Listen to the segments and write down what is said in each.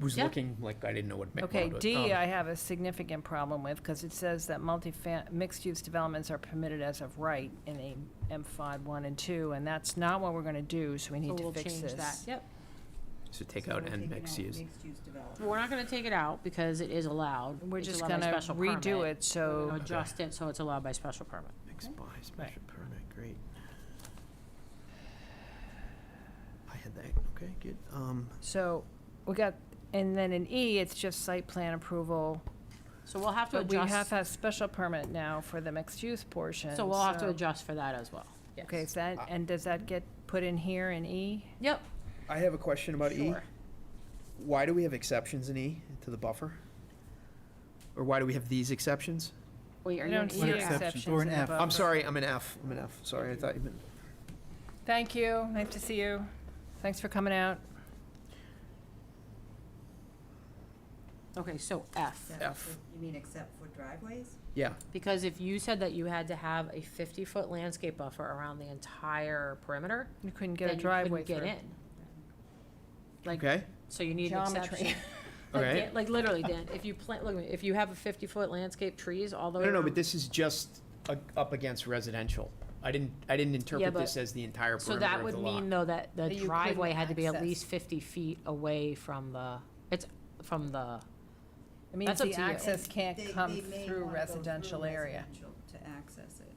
was Yeah. looking like I didn't know what. ma- Okay, what it- D, um, I have a significant problem with, because it says that multifam, mixed-use developments are permitted as of right in a M five one and two, and that's not what we're gonna do, so we So need to we'll fix change that. this. Yep. So take out and mixed use. Well, We're not gonna take it out because it is allowed. We're It's just allowed by gonna special permit. redo it, We're gonna so, Adjust it so it's allowed by special permit. Mixed by special permit, great. I had that, okay, good. Um, so, we got, and then in E, it's just site plan approval. So we'll have to But we adjust, have a special permit now for the mixed-use portion, so we'll have to adjust for that as well. Yes. Okay, so that, and does that get put in here in E? Yep. I have a question about E. Sure. Why do we have exceptions in E to the buffer? Or why do we have these exceptions? Wait, are I you don't in see E or exception. F? exceptions Or in an the F. I'm buffer. sorry, I'm an F. I'm an F. Sorry, I thought you meant. Thank you, nice to see you. Thanks for coming out. Okay, so F. F. You mean except for driveways? Yeah, Because if you said that you had to have a fifty-foot landscape buffer around the entire perimeter, You couldn't then get a you couldn't driveway get through. in. Like, okay, so you need an Geometry. exception. Like, Okay. Dan- Like, literally, Dan, if you plant, look, at me, if you have a fifty-foot landscape trees all No, the way no, around. no, but this is just a- up against residential. I didn't, I didn't interpret but- this as the entire So perimeter that of would the lot. mean though that the That you couldn't driveway had to be at access. least fifty feet away from the, it's from the, It means That's up the to you. access can't They- come they may through wanna go residential area. residential To access it.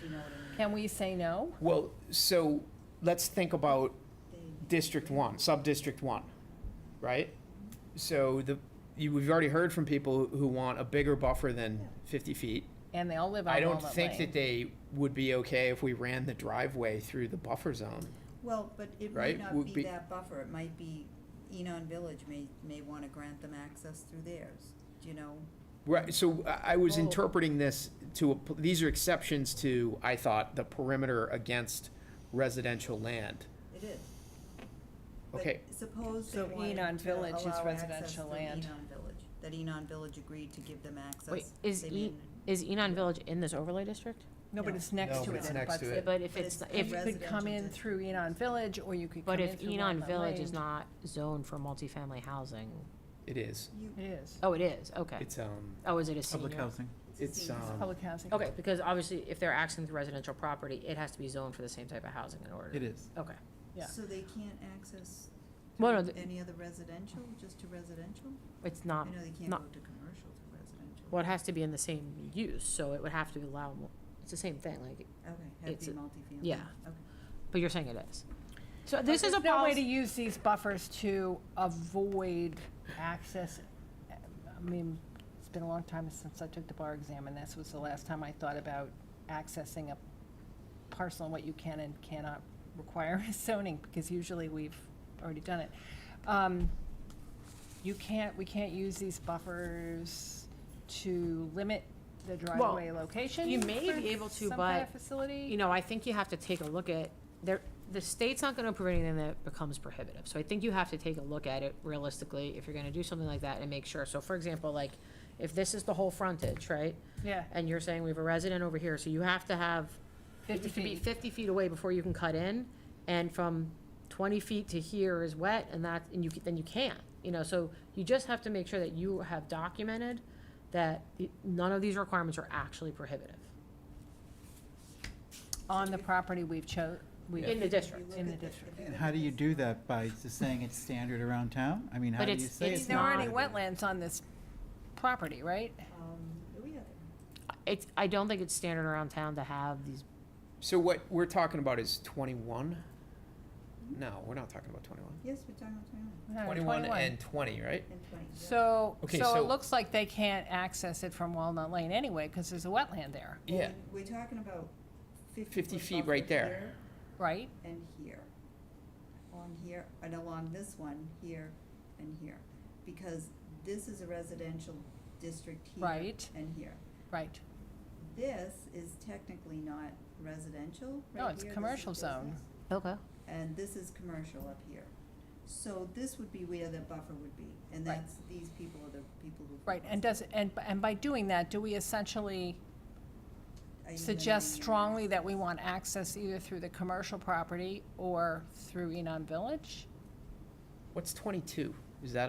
Do you know what I mean? Can we say no? Well, so let's think about They- District One, Sub-District One, right? So the, you, we've already heard from people who want a bigger buffer than fifty feet. And they all live I on don't Walnut think that Lane. they would be okay if we ran the driveway through the buffer zone. Well, but it Right, might not would be- be that buffer, it might be Enon Village may, may wanna grant them access through theirs, do you know? Right, so I I was Oh. interpreting this to, a- these are exceptions to, I thought, the perimeter against residential land. It is. But Okay, Suppose they So Enon wanted to Village is allow access residential through land. Enon Village, that Enon Village agreed to give them access. wait, is They E, mean- is Enon Village in this overlay district? No, but No. it's next No, to but it. it's and it next butts to it. it. But if it's, it's if, a You could come Residential in district. through Enon Village, or you could come but in if through Enon Walnut Village is Lane. not zoned for multifamily housing, it is. You, It is. oh, it is, okay. It's, um, Oh, is it a Public senior? housing. it's a it's, senior um, Public housing. Okay, because obviously if they're accessing residential property, it has to be zoned for the same type of housing in order. It is. Okay. Yeah. So they can't access Well, no, through the- any other residential, just to residential? It's I not, know they can't go not- to commercial to residential. well, it has to be in the same use, so it would have to be allowable. It's the same thing, like, Okay, have it's to a- be multifamily. yeah. Okay. but you're saying it is. So But this is a there's no way policy. to use these buffers to avoid access. I mean, it's been a long time since I took the bar exam, and this was the last time I thought about accessing a parcel and what you can and cannot require as zoning, because usually we've already done it. Um, You can't, we can't use these buffers to limit the driveway location you may for be able to, some kind of but, facility? you know, I think you have to take a look at, there, the state's not gonna approve anything that becomes prohibitive, so I think you have to take a look at it realistically, if you're gonna do something like that and make sure, so for example, like, if this is the whole frontage, right, Yeah, and you're saying we have a resident over here, so you have to have, it fifty needs to be feet. fifty feet away before you can cut in, and from twenty feet to here is wet, and that, and you, c- then you can't, you know, so you just have to make sure that you have documented that y- none of these requirements are actually prohibitive. on the property we've cho, we. In the district. In the district. And how do you do that? By just saying it's standard around town? I mean, how But do you it's- say it's it's There not? aren't any prohibited? wetlands on this property, right? Um, do we have it? It's, I don't think it's standard around town to have these, So what we're talking about is twenty-one? No, we're not talking about twenty-one. Yes, we're talking about No, twenty-one Twenty-one and twenty, right? and twenty. yeah. So, Okay, so so- it looks like they can't access it from Walnut Lane anyway, because there's a wetland there, Well, Yeah. We're talking about fifty. 50 foot feet buffer right there. here right? And here, on here, and along this one, here and here, because this is a residential district here. Right. And here. Right. This is technically not residential. No, right it's here, this is commercial zone. business, okay, And this is commercial up here. So this would be where the buffer would be, and Right. that's, these people are the people who. Right, and does, and, and by doing that, do we essentially Are you suggest eliminating strongly access? that we want access either through the commercial property or through Enon Village? What's twenty-two? Is that